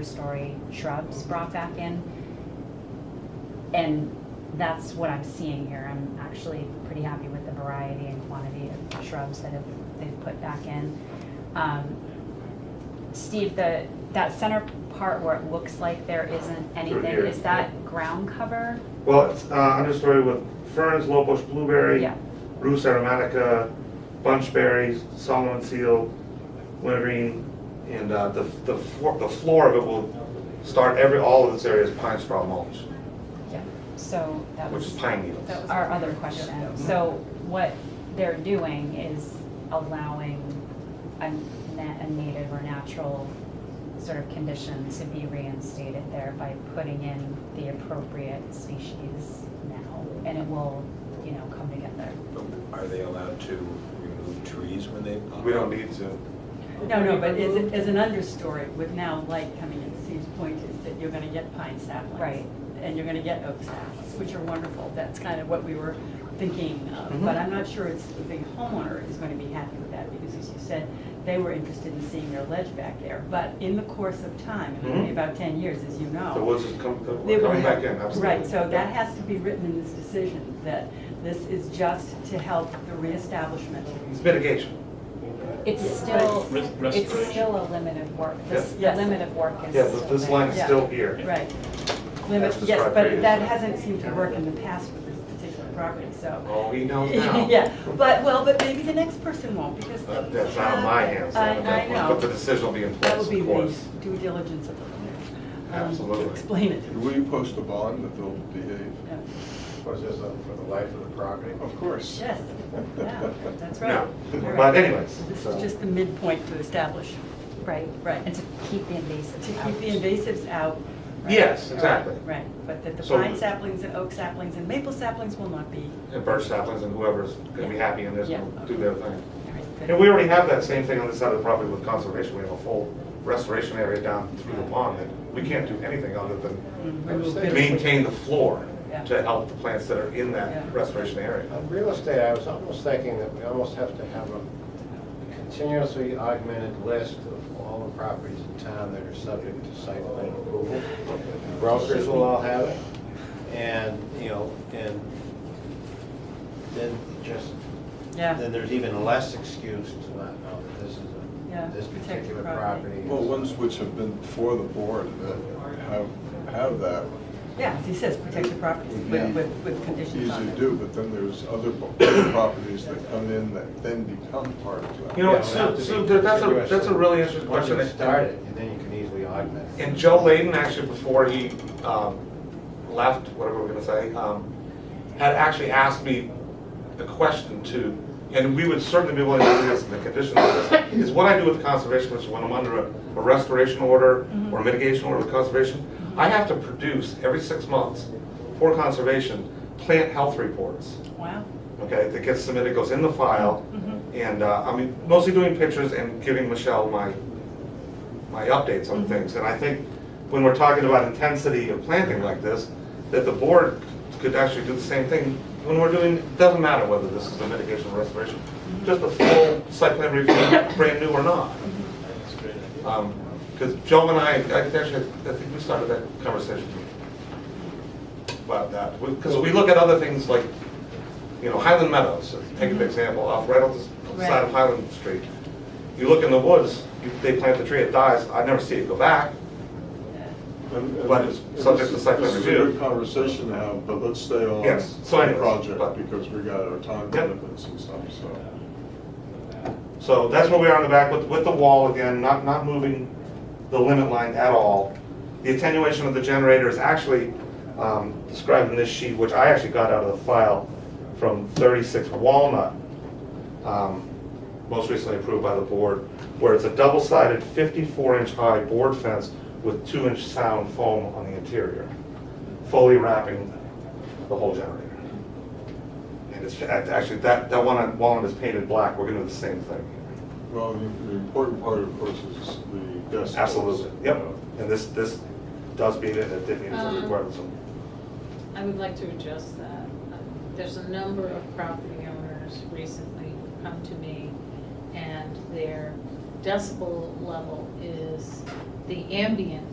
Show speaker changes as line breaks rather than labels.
understory shrubs brought back in. And that's what I'm seeing here. I'm actually pretty happy with the variety and quantity of shrubs that have, they've put back in. Um, Steve, the, that center part where it looks like there isn't anything,
here,
is that ground cover?
Well, it's uh, understory with ferns, low bush blueberry,
Yeah.
rus aromatica, bunchberry, Solomon seal, wintergreen, and uh, the the floor, the floor of it will start every all of this area is pine straw mulch,
Yeah. So that
which
was.
is pine needles.
That was-
our other question. So what they're doing is allowing a na- a native or natural sort of condition to be reinstated there by putting in the appropriate species now, and it will, you know, come together.
Are they allowed to remove trees when they? pop
We don't
up?
need to.
No, no, but as, a- as an understory with now light coming in, Steve's point is that you're gonna get pine saplings.
Right.
And you're gonna get oak saplings, which are wonderful. That's kind of what we were thinking of.
Mhm.
But I'm not sure it's, the homeowner is gonna be happy with that because as you said, they were interested in seeing their ledge back there. But in the course of time, in only
Mhm.
about ten years, as you know.
The woods is coming,
Oh. They will
coming back
have-
in, absolutely.
Right, so that has to be written in this decision, that this is just to help the reestablishment.
It's mitigation.
It's still,
Res-
it's
restoration.
still a limit of work. This, the
Yeah.
limit of work is.
Yeah, this-
still
this
there.
line is
Yeah.
still here.
Right. Limit,
As
yes,
described
but that
previously.
hasn't seemed to work in the past with this particular property, so.
Oh, he knows now.
Yeah, but, well, but maybe the next person won't, because.
That-
things
That's out of my hands.
I,
at that
I
point, But the
know.
decision will be in place,
That will be
of
the
course.
due diligence of the lawyer. um,
Absolutely.
To explain it.
Will you post a bond that they'll behave?
Yeah.
Was this uh, for the life of the property?
Of course.
Yes, Oh, yeah, that's right.
No,
All right.
but anyways,
This
so-
is just the midpoint to establish,
Right.
Right.
And to keep the invasive.
to
out.
keep the invasives out. right?
Yes, exactly.
Right, but that the
So-
pine saplings and oak saplings and maple saplings will not be,
and birch saplings and whoever's gonna be happy and is
Yeah.
gonna do their thing.
all right, good.
And we already have that same thing on this side of the property with conservation, we have a full restoration area down through the pond that we can't do anything other than
Mhm.
maintain the floor
Yeah.
to help the plants that are in
Yeah.
that restoration area.
On Uh, real estate, I was almost thinking that we almost have to have a continuously augmented list of all the properties in town that are subject to site plan approval. Brokers will all have it, and, you know, and then just,
Yeah,
then there's even less excuse to not know that this is
Yeah,
a, this
protected
particular
property.
property. is-
Well, ones which have been before the board that have, have that,
yeah, as he says, protect the properties with, with, with
easy
conditions on
to
it.
do, but then there's other bo- other properties that come in that then become part of that.
You know,
Yeah,
so,
not to
so
be
that- that's a,
continuous.
that's a really interesting
Once
question.
you start it, and then you can easily augment it.
And Joe Layden, actually, before he um, left, whatever we're gonna say, um, had actually asked me a question too, and we would certainly be willing to do this in the condition of this, is what I do with conservation, which is when I'm under a a restoration order or mitigation order with conservation, I have to produce every six months for conservation, plant health reports,
Wow.
okay, that gets submitted, goes in the file,
Mhm.
and uh, I mean, mostly doing pictures and giving Michelle my, my updates on things. And I think when we're talking about intensity of planting like this, that the board could actually do the same thing when we're doing, it doesn't matter whether this is a mitigation or restoration, just a full site plan review, brand new or not. Because Um, Joe and I, I actually, I think we started that conversation about that. Because we look at other things like, you know, Highland Meadows, take an example, off right off the side of
Right.
Highland Street. You look in the woods, you- they plant the tree, it dies, I never see it go back.
And- and
But it's
this-
subject to site plan
This
review.
is a good conversation to have, but let's stay on
Yes, so
the
anyways, but-
project because we got our time
Yep.
limits and stuff, so.
So that's where we are in the back with, with the wall again, not, not moving the limit line at all. The attenuation of the generator is actually um, described in this sheet, which I actually got out of the file from 36 Walnut, um, most recently approved by the board, where it's a double-sided 54-inch high board fence with 2-inch sound foam on the interior, fully wrapping the whole generator. And it's, actually, that, that one on Walnut is painted black, we're gonna do the same thing here.
Well, the- the important part, of course, is the decibels.
Absolutely, yep.
Uh,
And this, this does meet it, it did meet the
Um,
requirements.
I would like to adjust that. Uh, There's a number of property owners recently who've come to me, and their decibel level is the ambient